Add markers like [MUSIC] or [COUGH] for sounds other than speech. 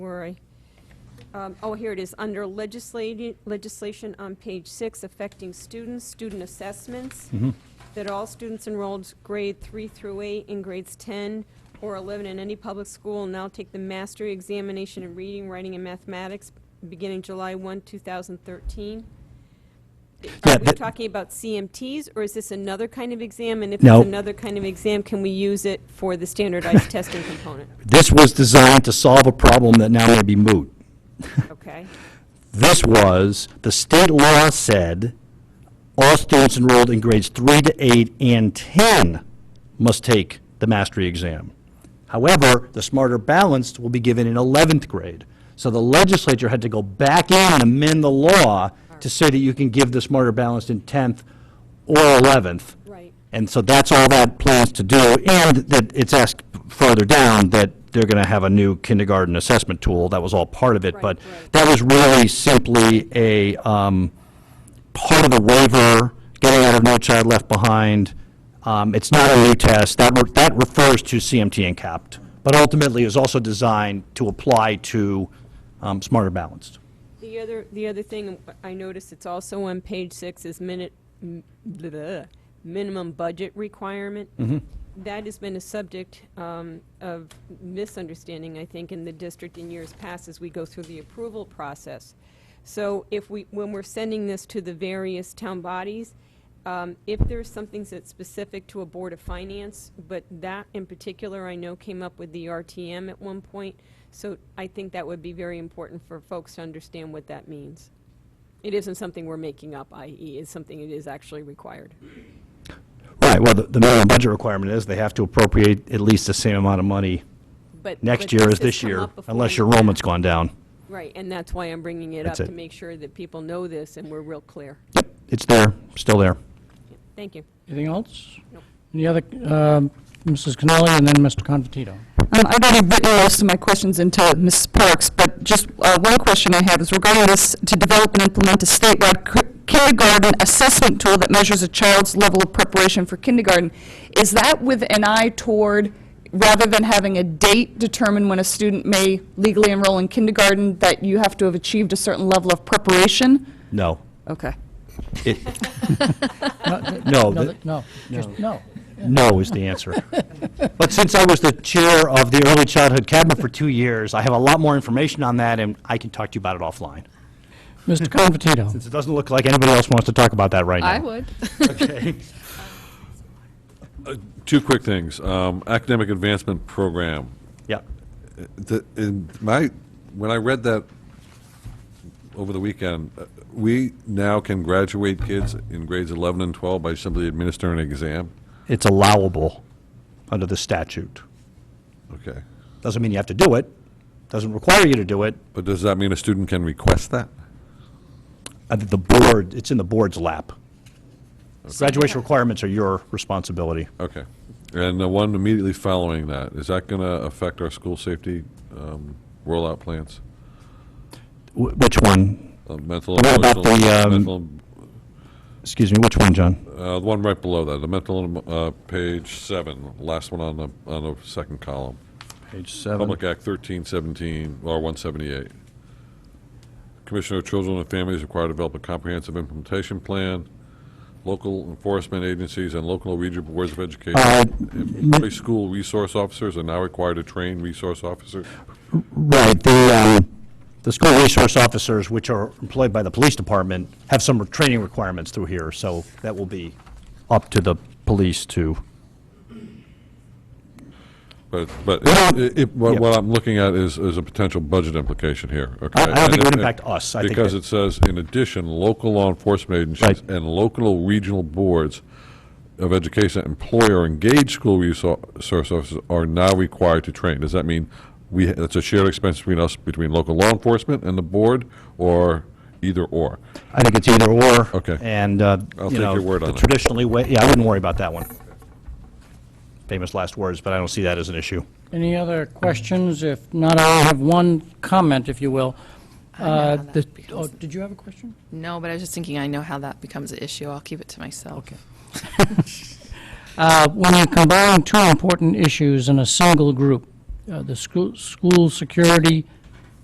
worry. Um, Oh, here it is, under legislati- legislation on page six affecting students, student assessments, Mm-hmm. that all students enrolled grade three through eight in grades 10 or 11 in any public school now take the mastery examination in reading, writing, and mathematics beginning July 1, 2013. Yeah, Are we that- talking about CMTs, or is this another kind of exam? And if No. it's another kind of exam, can we use it for the [LAUGHS] standardized testing component? This was designed to solve a problem that now may be moot. Okay, This was, the state law said, all students enrolled in grades three to eight and 10 must take the mastery exam. However, the smarter balanced will be given in 11th grade. So the legislature had to go back in and amend the law to say that you can give the smarter balanced in 10th or 11th. right. And so that's all that plans to do, and that it's asked further down that they're going to have a new kindergarten assessment tool, that was all part of it. Right, But right. that was really simply a um, part of the waiver, getting out of No Child Left Behind. Um, It's not a new test, that, re- that refers to CMT and CAPT, but ultimately is also designed to apply to um, Smarter Balanced. The other, the other thing I noticed, it's also on page six, is minute, m- bleh, minimum budget requirement. That has been a subject um, of misunderstanding, I think, in the district in years past as we go through the approval process. So if we, when we're sending this to the various town bodies, um, If there's something that's specific to a Board of Finance, but that in particular, I know came up with the RTM at one point, so I think that would be very important for folks to understand what that means. It isn't something we're making up, i.e., it's something that is actually required. Right, well, the the minimum budget requirement is they have to appropriate at least the same amount of money But next but year as has this come year, up before. unless your enrollment's gone down. Right, and that's why I'm bringing it up, That's to it. make sure that people know this and we're real clear. Yep, it's there, still there. Thank you. Anything else? Nope. Any other, um, Mrs. Cannoli and then Mr. Confortito? Um, I've already written most of my questions into Mrs. Parks, but just uh, one question I have is regarding this, to develop and implement a statewide cri- kindergarten assessment tool that measures a child's level of preparation for kindergarten. Is that with an eye toward, rather than having a date determine when a student may legally enroll in kindergarten, that you have to have achieved a certain level of preparation? No. Okay. It- No, [LAUGHS] No, th- the- No, just no. no is the answer. But since I was the chair of the Early Childhood Cabinet for two years, I have a lot more information on that, and I can talk to you about it offline. Mr. Confortito? It doesn't look like anybody else wants to talk about that right now. would. Okay. Two quick things. Um, Academic Advancement Program. Yeah. The- in my, when I read that over the weekend, uh, we now can graduate kids in grades 11 and 12 by simply administering an exam? It's allowable under the statute. Okay. Doesn't mean you have to do it, doesn't require you to do it. But does that mean a student can request that? Uh, The board, it's in the board's lap. Graduation requirements are your responsibility. Okay. And the one immediately following that, is that going to affect our school safety um, rollout plans? Wh- Which one? Uh, Mental, What about emotional, the, um, mental, Excuse me, which one, John? uh, the one right below that, the mental, and, uh, page seven, last one on the, on the second column. Page seven. Public Act 1317, or 178. Commissioner of Children and Families required to develop a comprehensive implementation plan. Local enforcement agencies and local regional boards of education, Uh, and every school resource officers are now required to train resource officers. Right, the, um, the school resource officers, which are employed by the police department, have some training requirements through here, so that will be up to the police to, But, but Well, it- it- what yeah. what I'm looking at is, is a potential budget implication here, okay? I don't think it would And- impact us. I think Because that- it says, in addition, local law enforcement agencies Right. and local regional boards of education employ or engage school resource officers are now required to train. Does that mean we, it's a shared expense between us, between local law enforcement and the board, or either or? I think it's either or. Okay. And, uh, I'll you take know, your word the on it. traditionally, wa- yeah, I wouldn't worry about that one. Famous last words, but I don't see that as an issue. Any other questions? If not, I have one comment, if you will. Uh, how that the- becomes- oh, Did you have a question? No, but I was just thinking, I know how that becomes an issue. I'll keep it to myself. Okay. Uh, When you combine two important issues in a single group, uh, the school, school security